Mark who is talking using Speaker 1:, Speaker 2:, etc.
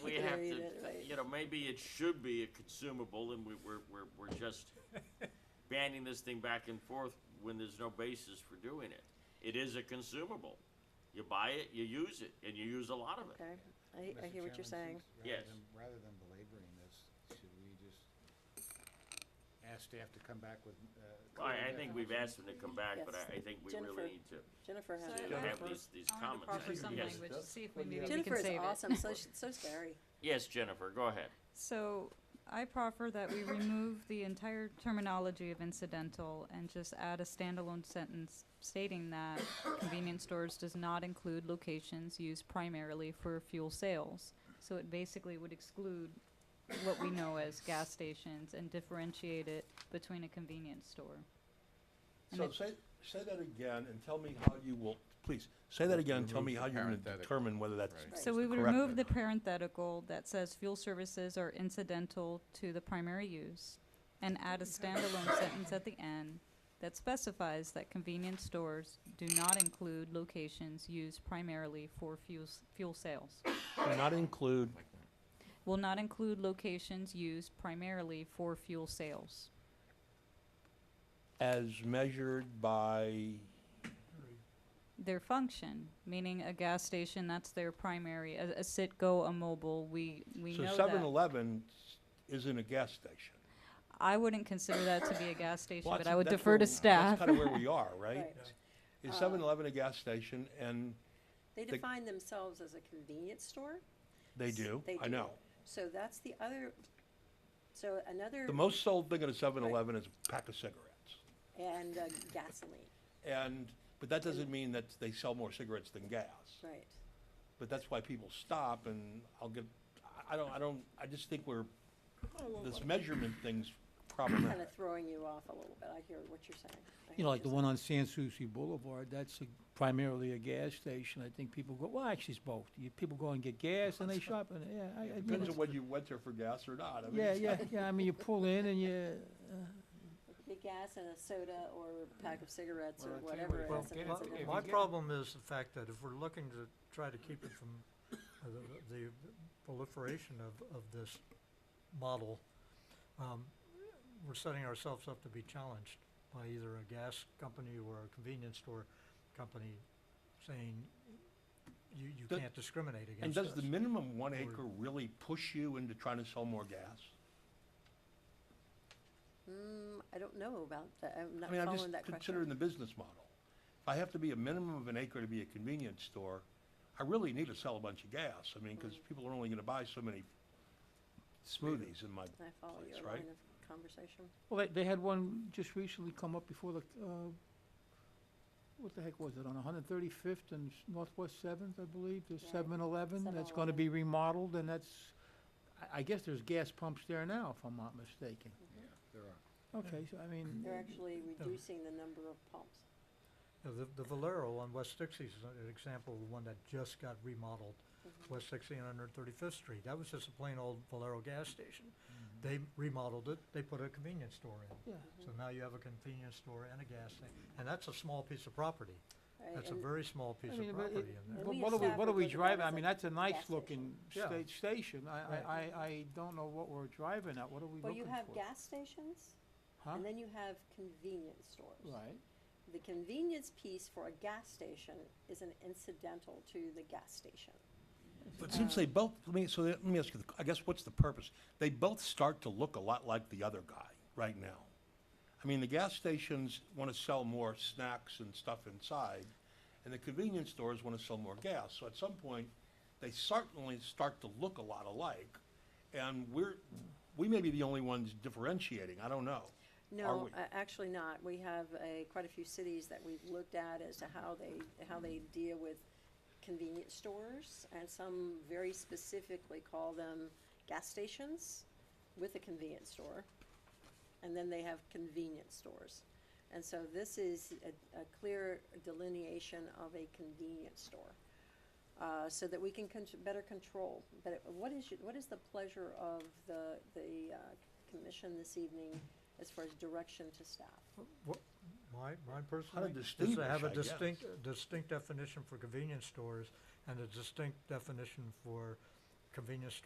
Speaker 1: know, maybe it should be a consumable and we, we're, we're, we're just banning this thing back and forth when there's no basis for doing it. It is a consumable. You buy it, you use it, and you use a lot of it.
Speaker 2: Okay, I, I hear what you're saying.
Speaker 1: Yes.
Speaker 3: Rather than belaboring this, should we just ask staff to come back with, uh?
Speaker 1: I, I think we've asked them to come back, but I, I think we
Speaker 2: Jennifer.
Speaker 1: really need to,
Speaker 2: Jennifer has.
Speaker 4: So
Speaker 1: to
Speaker 4: I-
Speaker 1: have these, these
Speaker 4: I'll have to
Speaker 1: comments.
Speaker 4: proffer some
Speaker 1: Yes,
Speaker 4: language, to see if we maybe we can
Speaker 2: Jennifer is
Speaker 4: save it.
Speaker 2: awesome, so, sh- so's Barry.
Speaker 1: yes, Jennifer, go ahead.
Speaker 4: So I proffer that we remove the entire terminology of incidental and just add a standalone sentence stating that convenience stores does not include locations used primarily for fuel sales. So it basically would exclude what we know as gas stations and differentiate it between a convenience store. And
Speaker 5: So
Speaker 4: it-
Speaker 5: say, say that again and tell me how you will, please, say that again, and tell me how you're gonna
Speaker 6: Parenthetic.
Speaker 5: determine whether that's.
Speaker 6: Right.
Speaker 4: So we would
Speaker 5: correct
Speaker 4: remove
Speaker 5: or
Speaker 4: the
Speaker 5: not.
Speaker 4: parenthetical that says fuel services are incidental to the primary use and add a standalone sentence at the end that specifies that convenience stores do not include locations used primarily for fuel, s- fuel sales.
Speaker 5: Do Not include,
Speaker 4: Will not include locations used primarily for fuel sales.
Speaker 5: as measured by,
Speaker 4: Their function, meaning a gas station, that's their primary, a, a Citgo, a mobile, we, we
Speaker 5: so
Speaker 4: know that.
Speaker 5: seven eleven isn't a gas station.
Speaker 4: I wouldn't consider that to be a gas station,
Speaker 5: Well,
Speaker 4: but
Speaker 5: that's-
Speaker 4: I would
Speaker 5: that's
Speaker 4: defer
Speaker 5: where
Speaker 4: to
Speaker 5: we-
Speaker 4: staff.
Speaker 5: That's kinda where we are, right?
Speaker 2: Right. Uh,
Speaker 5: Is seven eleven a gas station? And
Speaker 2: They
Speaker 5: The-
Speaker 2: define themselves as a convenience store,
Speaker 5: they
Speaker 2: S-
Speaker 5: do,
Speaker 2: they
Speaker 5: I
Speaker 2: do.
Speaker 5: know.
Speaker 2: so that's the other, so another,
Speaker 5: The most sold thing at a seven eleven is a pack of cigarettes.
Speaker 2: and uh, gasoline,
Speaker 5: And, but that doesn't mean that they sell more cigarettes than gas.
Speaker 2: right.
Speaker 5: But that's why people stop and I'll get, I- I don't, I don't, I just think we're, this measurement thing's
Speaker 2: Kind
Speaker 5: problematic.
Speaker 2: of throwing you off a little bit, I hear what you're saying. I
Speaker 7: You
Speaker 2: hear
Speaker 7: know,
Speaker 2: what
Speaker 7: like the
Speaker 2: you're
Speaker 7: one on San Souci Boulevard, that's a- primarily a gas station. I think people go, well, actually, it's both. You, people go and get gas and they shop and, yeah, I, I mean,
Speaker 5: Depends on
Speaker 7: it's-
Speaker 5: whether you went there for gas or not. I mean,
Speaker 7: yeah,
Speaker 5: it's
Speaker 7: yeah,
Speaker 5: not-
Speaker 7: yeah, I mean, you pull in and you, uh,
Speaker 2: saying. The gas and a soda or a pack of cigarettes or
Speaker 3: Well, I tell you what,
Speaker 2: whatever.
Speaker 3: Well,
Speaker 2: it is, and
Speaker 3: my-
Speaker 2: it's a-
Speaker 3: if
Speaker 8: My
Speaker 3: you get-
Speaker 8: problem is the fact that if we're looking to try to keep it from uh, the, the proliferation of, of this model, um, we're setting ourselves up to be challenged by either a gas company or a convenience store company saying, you, you
Speaker 5: Does-
Speaker 8: can't discriminate
Speaker 5: And
Speaker 8: against us.
Speaker 5: does the minimum one acre really push you into trying to sell more gas?
Speaker 2: Mm, I don't know about that, I'm
Speaker 5: I
Speaker 2: not
Speaker 5: mean, I'm just
Speaker 2: following that
Speaker 5: considering
Speaker 2: question.
Speaker 5: the business model. If I have to be a minimum of an acre to be a convenience store, I really need to sell a bunch of gas. I mean, because
Speaker 2: Mm.
Speaker 5: people are only going to buy so many smoothies in my
Speaker 2: I follow
Speaker 5: place,
Speaker 2: your
Speaker 5: right?
Speaker 2: line of conversation.
Speaker 7: well, they, they had one just recently come up before the, uh, what the heck was it, on one hundred thirty-fifth and s- Northwest Seventh, I believe, there's
Speaker 2: Right.
Speaker 7: seven eleven, that's gonna be remodeled and that's, I, I guess there's gas pumps there now, if I'm not mistaken.
Speaker 3: There are.
Speaker 7: Okay, so I mean.
Speaker 2: They're actually reducing the number of pumps.
Speaker 8: Yeah, The, the Valero on West Dixie is an example of one that just got remodeled,
Speaker 2: Mm-hmm.
Speaker 8: West Dixie and Hundred Thirty-Fifth Street. That was just a plain old Valero gas station. They remodeled it, they put a convenience store in.
Speaker 7: Yeah.
Speaker 2: Mm-hmm.
Speaker 8: So now you have a convenience store and a gas station, and that's a small piece of property.
Speaker 2: right?
Speaker 8: That's a
Speaker 2: And-
Speaker 8: very small piece
Speaker 7: I
Speaker 8: of
Speaker 7: mean, but it-
Speaker 8: property in there.
Speaker 7: But
Speaker 2: we
Speaker 7: what are we, what are we
Speaker 2: established that
Speaker 7: driving,
Speaker 2: that
Speaker 7: I
Speaker 2: is
Speaker 7: mean,
Speaker 2: a
Speaker 7: that's a
Speaker 2: gas
Speaker 7: nice
Speaker 2: station.
Speaker 7: looking
Speaker 8: Yeah.
Speaker 7: state station, I,
Speaker 8: Right.
Speaker 7: I, I, I don't know what we're driving at, what are we
Speaker 2: Well,
Speaker 7: looking
Speaker 2: you
Speaker 7: for?
Speaker 2: have gas stations,
Speaker 7: Huh?
Speaker 2: and then you have convenience stores.
Speaker 7: Right,
Speaker 2: The convenience piece for a gas station is an incidental to the gas station.
Speaker 5: But since they both, let me, so let me ask you, the- I guess what's the purpose? They both start to look a lot like the other guy right now. I mean, the gas stations want to sell more snacks and stuff inside, and the convenience stores want to sell more gas. So at some point, they certainly start to look a lot alike, and we're, we may be the only ones differentiating, I don't know.
Speaker 2: No,
Speaker 5: we?
Speaker 2: a- actually not. We have a, quite a few cities that we've looked at as to how they, how they deal with convenience stores, and some very specifically call them gas stations with a convenience store, and then they have convenience stores. And so this is a, a clear delineation of a convenience store, uh, so that we can con- better control. But it- what is, your- what is the pleasure of the, the, uh, commission this evening as far as direction to staff?
Speaker 8: What, my, mine personally, is to
Speaker 5: distinguish,
Speaker 8: have
Speaker 5: I
Speaker 8: a
Speaker 5: guess.
Speaker 8: distinct, distinct definition for convenience stores and a distinct definition for convenience